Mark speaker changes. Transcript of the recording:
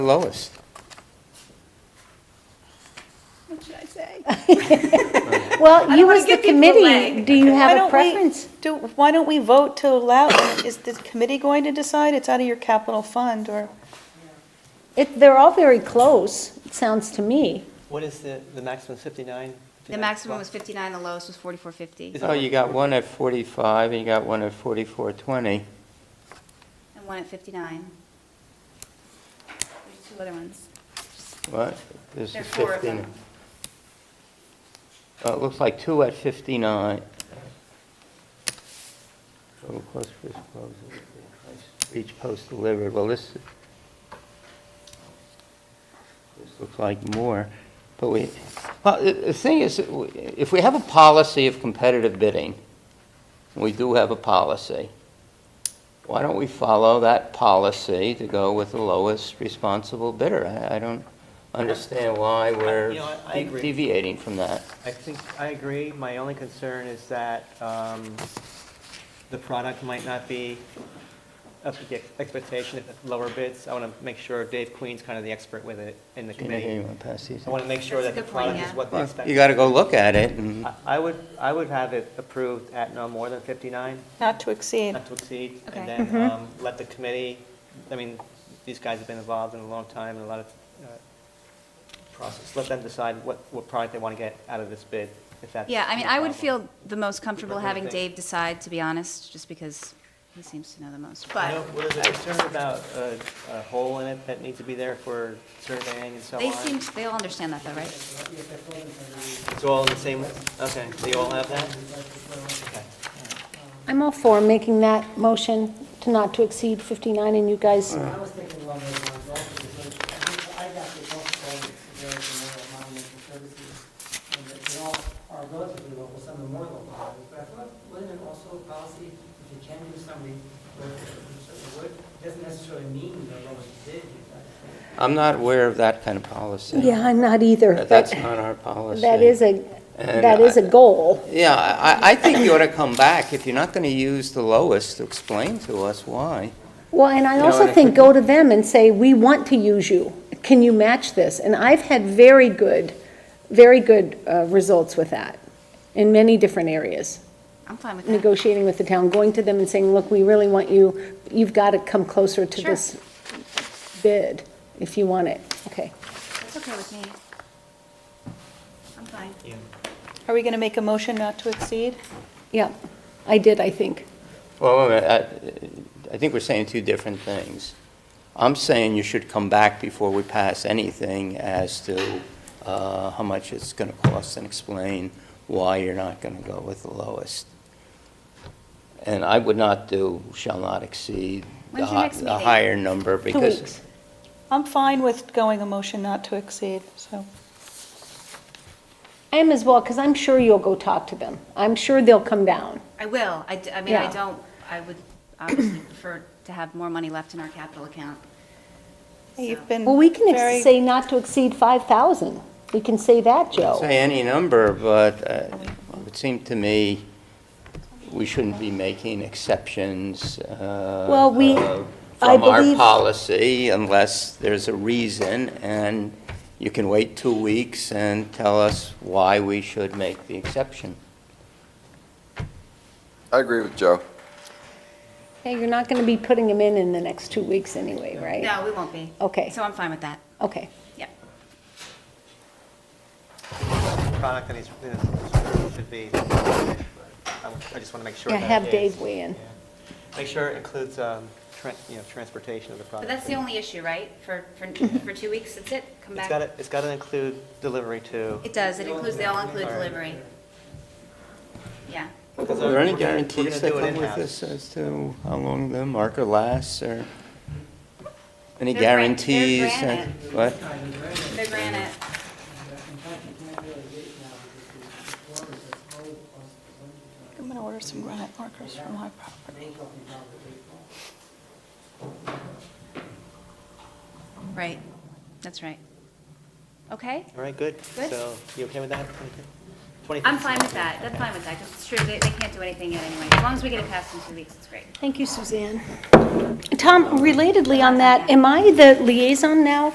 Speaker 1: Lowest.
Speaker 2: What should I say?
Speaker 3: Well, you
Speaker 2: wanna
Speaker 3: as the
Speaker 2: give people
Speaker 3: committee,
Speaker 2: away.
Speaker 3: do you
Speaker 4: Why
Speaker 3: have
Speaker 4: don't
Speaker 3: a
Speaker 4: we-
Speaker 3: preference?
Speaker 4: Do, why don't we vote to allow, is the committee going to decide? It's out of your capital fund, or,
Speaker 3: It, they're all very close, it sounds to me.
Speaker 5: What is the, the maximum is 59?
Speaker 2: The maximum was 59, the lowest was 44.50,
Speaker 5: Is-
Speaker 1: Oh, you got one at 45, and you got one at 44.20.
Speaker 2: and one at 59. There's two other ones.
Speaker 1: What? This
Speaker 2: There are
Speaker 1: is
Speaker 2: four of
Speaker 1: 15.
Speaker 2: them.
Speaker 1: Oh, it looks like two at 59. So request for disposal, each post delivered, well, this, this looks like more, but we, well, the- the thing is, if we have a policy of competitive bidding, we do have a policy, why don't we follow that policy to go with the lowest responsible bidder? I I don't understand why we're
Speaker 5: you know, I- I agree.
Speaker 1: deviating from that.
Speaker 5: I think, I agree. My only concern is that um, the product might not be up to the ex- expectation if it's lower bids. I want to make sure Dave Queen's kind of the expert with it in the
Speaker 1: Gina, here, you
Speaker 5: committee.
Speaker 1: wanna pass these?
Speaker 5: I want to make sure
Speaker 2: That's a
Speaker 5: that the
Speaker 2: good point,
Speaker 5: product is
Speaker 2: yeah.
Speaker 5: what they
Speaker 1: Well,
Speaker 5: expect.
Speaker 1: Mm-hmm. You gotta go look at it, and
Speaker 5: I- I would, I would have it approved at no more than 59,
Speaker 4: not to exceed?
Speaker 5: not to exceed.
Speaker 2: Okay. Mm-hmm.
Speaker 5: And then um, let the committee, I mean, these guys have been involved in a long time, and a lot of uh, process. Let them decide what, what product they want to get out of this bid, if that's.
Speaker 2: Yeah, I mean,
Speaker 5: no
Speaker 2: I would
Speaker 5: problem.
Speaker 2: feel the most comfortable
Speaker 5: What do you
Speaker 2: having
Speaker 5: think?
Speaker 2: Dave decide, to be honest, just because he seems to know the most.
Speaker 5: You know,
Speaker 2: But
Speaker 5: well, there's a concern about a, a hole in it that needs to be there for surveying and so on.
Speaker 2: they seem, they all understand that though, right?
Speaker 5: It's all in the same, okay, they all have that? Okay.
Speaker 3: I'm all for making that motion to not to exceed 59, and you guys,
Speaker 6: I was thinking along those lines also, because I think I got the phone call that there is a Memorial Monumental Services, and that they all are relatively local, some are more local, than others. but I thought, wasn't it also a policy, if you can do something, where you certainly would, doesn't necessarily mean the lowest bid, you know.
Speaker 1: I'm not aware of that kind of policy.
Speaker 3: yeah, I'm not either.
Speaker 1: That-
Speaker 3: but
Speaker 1: That's not our policy.
Speaker 3: That is a,
Speaker 1: And
Speaker 3: that is a
Speaker 1: I-
Speaker 3: goal.
Speaker 1: Yeah, I, I think you ought to come back, if you're not gonna use the lowest, to explain to us why.
Speaker 3: Well, and I
Speaker 1: know,
Speaker 3: also
Speaker 1: and I
Speaker 3: think
Speaker 1: think-
Speaker 3: go to them and say, we want to use you. Can you match this? And I've had very good, very good uh, results with that in many different areas.
Speaker 2: I'm fine with that.
Speaker 3: negotiating with the town, going to them and saying, look, we really want you, you've got to come closer to
Speaker 2: Sure.
Speaker 3: this bid if you want it. Okay.
Speaker 2: That's okay with me. I'm fine.
Speaker 5: Yeah.
Speaker 4: Are we going to make a motion not to exceed?
Speaker 3: Yeah, I did, I think.
Speaker 1: Well, wait a minute, I, I think we're saying two different things. I'm saying you should come back before we pass anything as to uh, how much it's going to cost and explain why you're not going to go with the lowest. And I would not do shall not exceed the
Speaker 2: When's your
Speaker 1: hi-
Speaker 2: next
Speaker 1: the
Speaker 2: meeting?
Speaker 1: higher number
Speaker 3: Two
Speaker 1: because.
Speaker 3: weeks.
Speaker 4: I'm fine with going a motion not to exceed, so.
Speaker 3: I am as well, because I'm sure you'll go talk to them. I'm sure they'll come down.
Speaker 2: I will. I, d- I mean, I
Speaker 3: Yeah.
Speaker 2: don't, I would obviously prefer to have more money left in our capital account.
Speaker 4: You've
Speaker 2: So-
Speaker 4: been
Speaker 3: Well, we can ex-
Speaker 4: very-
Speaker 3: say not to exceed 5,000. We can say that,
Speaker 1: I'd
Speaker 3: Joe.
Speaker 1: Say any number, but uh, it would seem to me we shouldn't be making exceptions uh,
Speaker 3: Well, we-
Speaker 1: uh,
Speaker 3: I
Speaker 1: from our
Speaker 3: believe-
Speaker 1: policy unless there's a reason, and you can wait two weeks and tell us why we should make the exception.
Speaker 7: I agree with Joe.
Speaker 3: Okay, you're not going to be putting them in in the next two weeks anyway, right?
Speaker 2: No, we won't be.
Speaker 3: Okay.
Speaker 2: So I'm fine with that.
Speaker 3: Okay.
Speaker 2: Yep.
Speaker 5: Product that he's, that should be, I I just want to make sure.
Speaker 3: Yeah,
Speaker 5: that
Speaker 3: have
Speaker 5: it
Speaker 3: Dave
Speaker 5: is-
Speaker 3: weigh in.
Speaker 5: yeah. Make sure it includes, um, tran- you know, transportation of the
Speaker 2: But
Speaker 5: product.
Speaker 2: that's the only issue, right? For, for, for two weeks, that's it? Come
Speaker 5: Mhm. It's got
Speaker 2: back?
Speaker 5: to, it's got to include delivery too.
Speaker 2: It does, it includes, they all include
Speaker 5: All right.
Speaker 2: delivery. Yeah.
Speaker 1: Are
Speaker 5: Because, uh,
Speaker 1: there any
Speaker 5: we're gonna- we're
Speaker 1: guarantees
Speaker 5: gonna
Speaker 1: that
Speaker 5: do it
Speaker 1: come with
Speaker 5: in-house.
Speaker 1: this as to how long the marker lasts, or any
Speaker 2: They're gran- they're
Speaker 1: guarantees? uh,
Speaker 2: granite.
Speaker 1: What?
Speaker 2: The granite,
Speaker 6: In fact, you can't really wait now, because the orders are slow, plus the winter time,
Speaker 4: I'm going to order some granite markers for my property.
Speaker 6: they're talking about the baseball.
Speaker 2: right, that's right. Okay,
Speaker 5: All right, good.
Speaker 2: Good.
Speaker 5: So you okay with that? Twenty-
Speaker 2: I'm fine with that, that's fine with that, because it's true, they, they can't do anything yet anyway. As long as we get it passed in two weeks, it's great.
Speaker 3: Thank you, Suzanne. Tom, relatedly on that, am I the liaison now